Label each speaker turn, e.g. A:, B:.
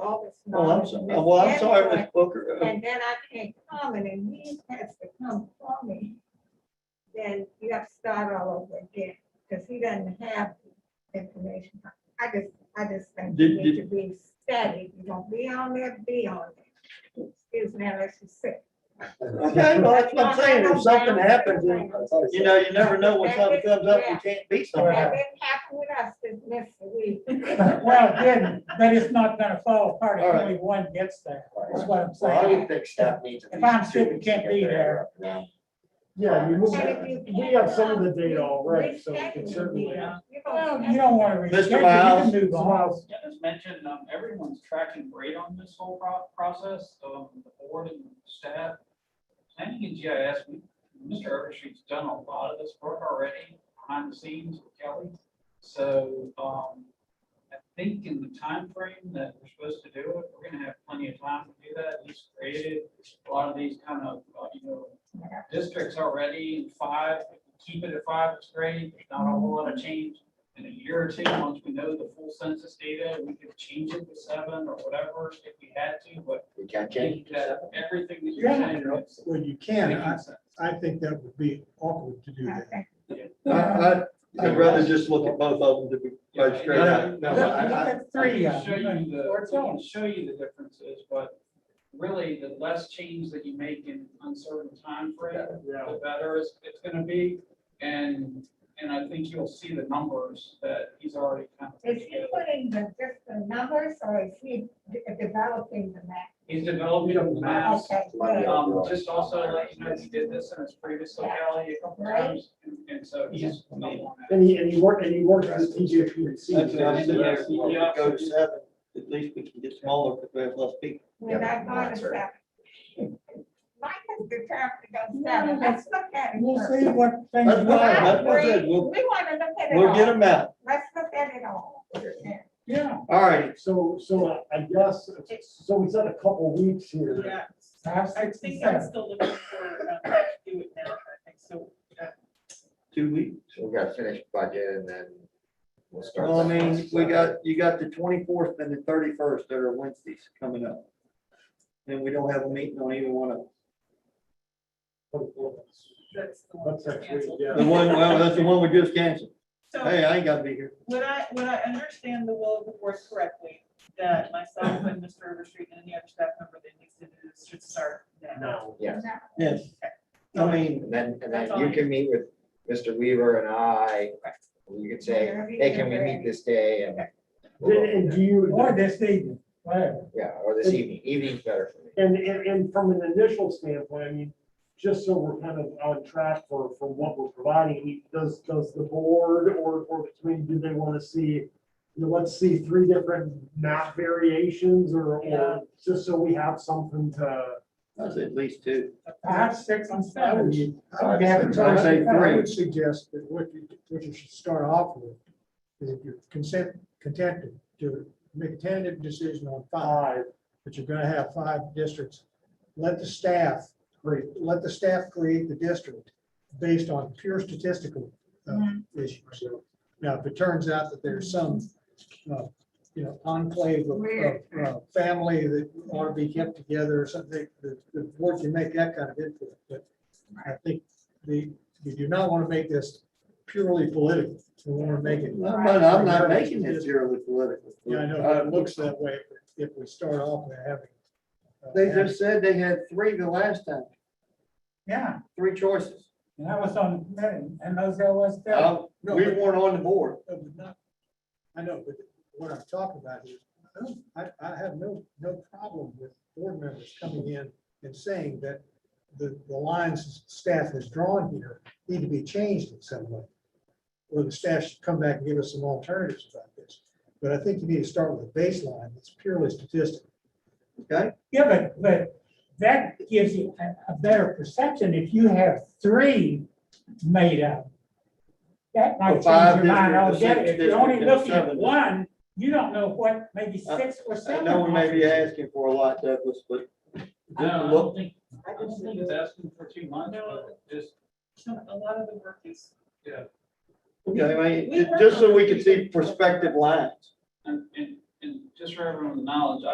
A: Well, Oh, I'm sorry, well, I'm sorry, Ms. Booker. Uh,
B: And then I can't comment and he has to come for me. Then you have to start all over again because he doesn't have the information. I just, I just think you
A: Did-
B: need to be steady. You don't be on there, be on there. Excuse me, unless you sick.
A: Okay, well, that's what I'm saying, if something happens, and, you know, you never know when something comes up, you can't beat
B: That
A: somebody.
B: didn't happen with us this next week.
C: Well, it did, but it's not gonna fall apart
A: All
C: if
A: right.
C: only one gets there, That's what I'm
D: Well, I
C: saying.
D: would think staff needs. at
C: If
D: least
C: I'm
D: two
C: sick, you
D: weeks to
C: can't
D: get
C: be
D: their
C: there.
D: up now.
E: Yeah, you move,
B: And if you
E: we have
B: can't,
E: some of the
B: um,
E: data already, so we
B: reschedule
E: can
B: it.
E: certainly.
B: You're
C: Well,
B: gonna-
C: you don't wanna. restrict it, you can
A: Miles.
C: Move on.
F: Dennis mentioned, um, everyone's tracking great on this whole pro- process, um, the board and staff. Planning and GIS, we, Mr. Overstreet's done a lot of this work already behind the scenes with Kelly. So, um, I think in the time frame that we're supposed to do it, we're gonna have plenty of time to do that. He's created a lot of these kind of, uh, you know, districts already, five, keep it at five, it's great, There's not a whole lot of change in a year or two, once we know the full census data, we could change it to seven or whatever if we had to, but
D: We can't
F: I
D: change
F: think
D: it to
F: that
D: seven.
F: everything that you're saying. is
E: When you can,
F: making
E: I,
F: sense.
E: I think that would be awkward to do that.
B: Okay.
A: I, I, I'd rather just look at both of them to be
F: Yeah.
A: quite straight out.
E: No,
C: Look
E: no, I- I-
C: look at three
F: I
C: of
F: can Show you
C: them.
F: the,
C: Or
F: I can
C: two.
F: show you the differences, but really the less change that you make in uncertain time frame,
E: Yeah.
F: the better it's, it's gonna be. And, and I think you'll see the numbers that he's already kind of. put
B: Is he
F: together.
B: putting the, just the numbers or is he de- developing the map?
F: He's developing the maps.
B: Okay,
D: Money.
B: good.
F: Um, just also to let you know, he did this in his previous locality a couple
B: Right.
F: times, and- and so he's.
E: And he, and he worked, and he worked with TJPC.
A: That's what I'm saying, if we
F: Yeah.
A: go to seven, at least we can get smaller, because we have less people.
B: We're not
D: Yeah,
B: going to
D: that's right.
B: stop. Mike has determined to go seven, let's look at it.
C: We'll
B: first.
C: see what things.
A: That's
B: I
A: fine.
C: are.
A: That's what I said,
B: agree. We
A: we'll-
B: want to look at it
A: We'll get
B: all,
A: them out.
B: let's look at it all. Yeah.
C: Yeah.
A: All right,
E: So, so I guess, so we said a couple weeks here.
G: Yeah,
C: Five,
G: I
C: six, and
G: think I'm
C: seven.
G: still looking for, um, to do it now, I think, so, uh,
A: two weeks.
D: So we gotta finish budget and then we'll start.
A: Well, I
D: that
A: mean,
D: process.
A: we got, you got the twenty-fourth and the thirty-first that are Wednesdays coming up. And we don't have a meeting on either one of them.
G: that's the one.
E: That's
G: that's
E: actually,
G: canceled.
E: yeah.
A: The one, well, that's the one we just canceled.
G: So,
A: Hey, I ain't gotta be here.
G: would I, would I understand the will of the board correctly, that myself and Mr. Overstreet and any other staff member that needs to do this should start now?
E: No.
D: Yes.
B: Now,
A: Yes. I mean,
D: And then, and
G: That's
D: then you
G: fine.
D: can meet with Mr. Weaver and I,
G: Correct.
D: you could say,
B: Whenever you
D: hey, can we
B: get
D: meet
B: ready.
D: this day and.
E: And, and do you?
C: Or this evening, whatever.
D: Yeah, or this evening, evening's better for me.
E: And, and, and from an initial standpoint, I mean, just so we're kind of on track for, for what we're providing, I mean, does, does the board or, or the community, do they want to see, you know, let's see three different map variations or,
G: Yeah.
E: or just so we have something to.
A: that's at least two.
C: Five, six, and
E: I
C: seven.
E: would, I
D: I'd
E: would have
D: say-
E: it.
A: I'd say
E: I
A: three.
E: would suggest that what you, what you should start off with is if you're consent, contented to make a tentative decision on five, but you're gonna have five districts. Let the staff, create. let the staff create the district based on pure statistical uh, issues. Now, if it turns out that there's some, uh, you know, enclave of,
B: Weird.
E: of, uh, family that ought to be kept together or something, the, the board can make that kind of input, but I think the, we do not want to make this purely political. We want to make it.
A: But I'm not making it purely political. Uh,
E: Yeah, I know, but it looks that way if we start off with having. uh,
A: They just said they had three the last time,
C: Yeah,
A: three choices.
C: and that was on, and those guys was there.
A: Uh, We weren't on the board.
E: No, but not- I know, but what I'm talking about is, I don't- I, I have no, no problem with board members coming in and saying that the, the lines staff has drawn here need to be changed in some way. Or the staff should come back and give us some alternatives about this. But I think you need to start with a baseline that's purely statistical.
C: Yeah, but, but that gives you a, a better perception if you have three made up. That might change
A: Five
C: your mind
A: district, six
C: altogether. If you're
A: district,
C: only
A: and
C: looking
A: seven
C: at
A: district.
C: one, you don't know what, maybe
A: I-
C: six or
A: I
C: seven.
A: know we Uh, may be
C: options.
A: asking for a lot, Douglas, but
F: No, I
A: Look.
F: don't think, I don't think it's asking for too much,
G: No.
F: but just,
G: A lot of the work is,
F: yeah,
A: Okay, I mean, ju- just so we can see perspective lines.
F: and, and, and just for everyone's knowledge,